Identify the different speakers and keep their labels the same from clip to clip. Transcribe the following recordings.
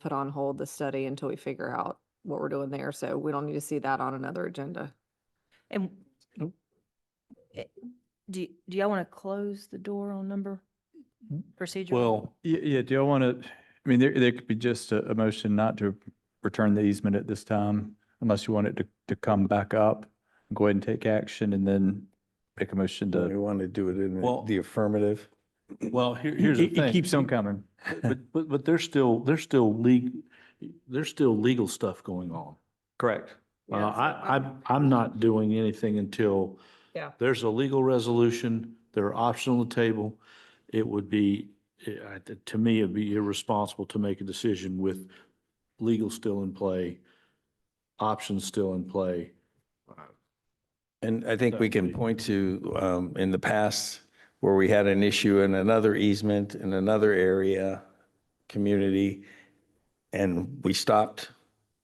Speaker 1: put on hold the study until we figure out what we're doing there. So we don't need to see that on another agenda.
Speaker 2: And
Speaker 3: Nope.
Speaker 2: Eh, do, y- do y'all want to close the door on number
Speaker 4: Mm-hmm.
Speaker 2: procedure?
Speaker 3: Well, yeah, yeah, do y'all want to, I mean, there, there could be just a, a motion not to return the easement at this time, unless you want it to, to come back up. Go ahead and take action and then make a motion
Speaker 5: Do we
Speaker 3: to,
Speaker 5: want to do it in
Speaker 4: Well-
Speaker 5: the- the affirmative?
Speaker 4: Well, here, here's the
Speaker 3: it
Speaker 4: thing.
Speaker 3: it keeps on coming.
Speaker 4: But, but, but there's still, there's still legal, there's still legal stuff going on.
Speaker 3: Correct.
Speaker 4: Uh, I, I'm, I'm not doing anything until
Speaker 1: Yeah.
Speaker 4: there's a legal resolution, there are options on the table. It would be, eh, I- t- to me, it'd be irresponsible to make a decision with legal still in play, options still in play.
Speaker 5: And I think we can
Speaker 4: Exactly.
Speaker 5: point to um, in the past where we had an issue in another easement in another area, community, and we stopped.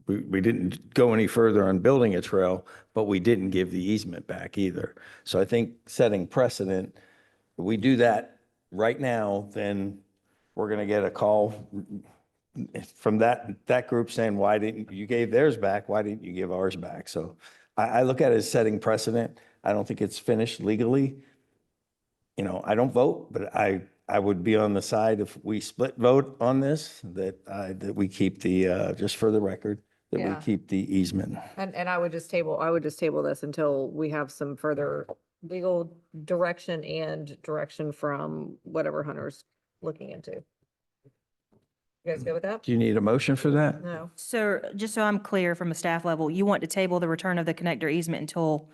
Speaker 5: We, we didn't go any further on building a trail, but we didn't give the easement back either. So I think setting precedent, if we do that right now, then we're going to get a call from that, that group saying, why didn't, you gave theirs back, why didn't you give ours back? So I, I look at it as setting precedent. I don't think it's finished legally. You know, I don't vote, but I, I would be on the side if we split vote on this, that, uh, that we keep the, uh, just for the record, that we
Speaker 1: Yeah.
Speaker 5: keep the easement.
Speaker 1: And, and I would just table, I would just table this until we have some further legal direction and direction from whatever Hunter's looking into. You guys go with that?
Speaker 5: Do you need a motion for that?
Speaker 1: No.
Speaker 2: So just so I'm clear from a staff level, you want to table the return of the connector easement until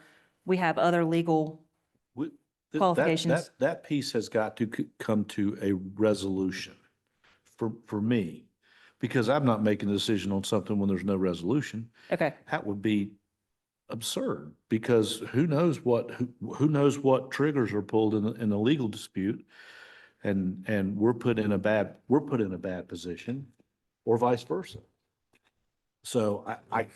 Speaker 2: we have other legal,
Speaker 4: We- th- that-
Speaker 2: Qualifications.
Speaker 4: That, that piece has got to c- come to a resolution for, for me. Because I'm not making a decision on something when there's no resolution.
Speaker 2: okay,
Speaker 4: that would be absurd because who knows what, who, who knows what triggers are pulled in, the- in a legal dispute? And, and we're put in a bad, we're put in a bad position or vice versa. So I, I,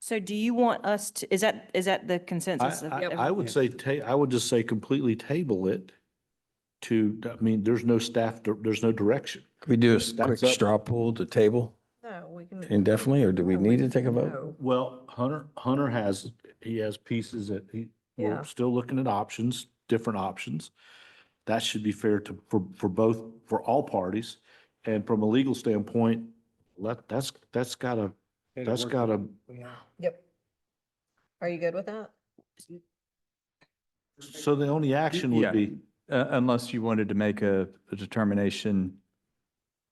Speaker 2: so do you want us to, is that, is that the consensus?
Speaker 4: I,
Speaker 2: of
Speaker 4: I,
Speaker 2: every-
Speaker 4: I would say ta, I would just say completely table it to, I mean, there's no staff, dir- there's no direction.
Speaker 5: Could we do a quick
Speaker 4: That's up.
Speaker 5: straw poll to table
Speaker 1: No, we can.
Speaker 5: indefinitely, or do we need to take a vote?
Speaker 1: No.
Speaker 4: Well, Hunter, Hunter has, he has pieces that he,
Speaker 1: Yeah.
Speaker 4: we're still looking at options, different options. That should be fair to, for, for both, for all parties. And from a legal standpoint, let, that's, that's gotta, that's gotta,
Speaker 1: Yep. Are you good with that?
Speaker 4: so the only action would
Speaker 3: Yeah.
Speaker 4: be,
Speaker 3: Uh, unless you wanted to make a, a determination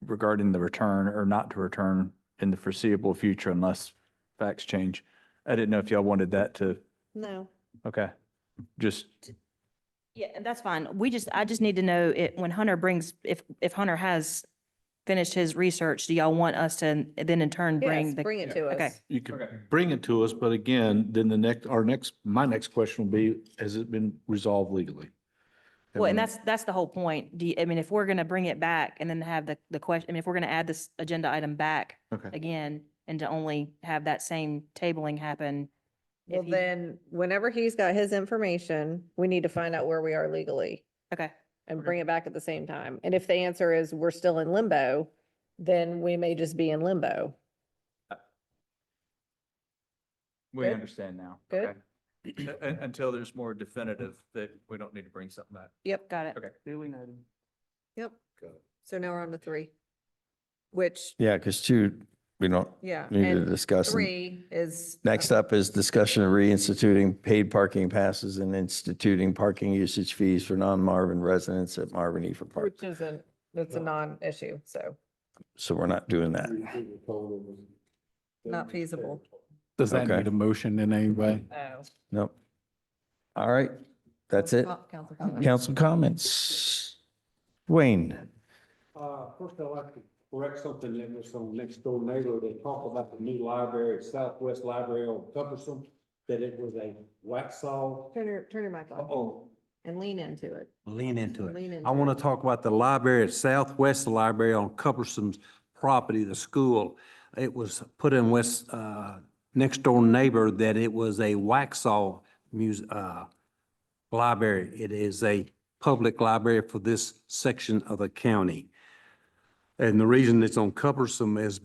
Speaker 3: regarding the return or not to return in the foreseeable future unless facts change. I didn't know if y'all wanted that to,
Speaker 1: No.
Speaker 3: okay, just,
Speaker 2: Yeah, and that's fine. We just, I just need to know it, when Hunter brings, if, if Hunter has finished his research, do y'all want us to then in turn
Speaker 1: Yes,
Speaker 2: bring the?
Speaker 1: bring it to
Speaker 2: okay.
Speaker 1: us.
Speaker 4: you could bring it to us, but again, then the next, our next, my next question will be, has it been resolved legally?
Speaker 2: Well, and
Speaker 4: mean,
Speaker 2: that's, that's the whole point. Do you, I mean, if we're going to bring it back and then have the, the question, I mean, if we're going to add this agenda item back
Speaker 4: Okay,
Speaker 2: again and to only have that same tabling happen. if
Speaker 1: Well,
Speaker 2: he-
Speaker 1: then, whenever he's got his information, we need to find out where we are legally
Speaker 2: Okay,
Speaker 1: and
Speaker 2: Okay.
Speaker 1: bring it back at the same time. And if the answer is we're still in limbo, then we may just be in limbo.
Speaker 3: we
Speaker 1: Good.
Speaker 3: understand now.
Speaker 1: Good.
Speaker 3: Okay. U- un- Until there's more definitive that we don't need to bring something back.
Speaker 1: Yep.
Speaker 2: got it.
Speaker 1: Yep. So now we're on to three. Which,
Speaker 5: Yeah, because two, we don't
Speaker 1: yeah,
Speaker 5: need to
Speaker 1: and
Speaker 5: discuss. and-
Speaker 1: three is.
Speaker 5: Next up is discussion of reinstituting paid parking passes and instituting parking usage fees for non-Marvin residents at Marvin Efer Park.
Speaker 1: Which isn't, that's a non-issue, so
Speaker 5: So we're not doing that.
Speaker 1: not feasible.
Speaker 6: Does that
Speaker 5: Okay.
Speaker 6: need a motion in any way?
Speaker 1: Oh.
Speaker 5: Nope. All right, that's it.
Speaker 1: uh-huh.
Speaker 5: Council comments. Wayne,
Speaker 7: Uh, first I'd like to correct something that was on next door neighbor. They talk about the new library, at Southwest Library on Cumberson, that it was a wax saw.
Speaker 1: Turn your, turn your mic off
Speaker 7: Oh,
Speaker 1: and lean into it.
Speaker 7: lean into it.
Speaker 1: Lean into
Speaker 7: I
Speaker 1: it.
Speaker 7: want to talk about the library at Southwest Library on Cumberson's property, the school. It was put in West, uh, next door neighbor that it was a Waxaw muse, uh, library. It is a public library for this section of the county. And the reason it's on Cumberson is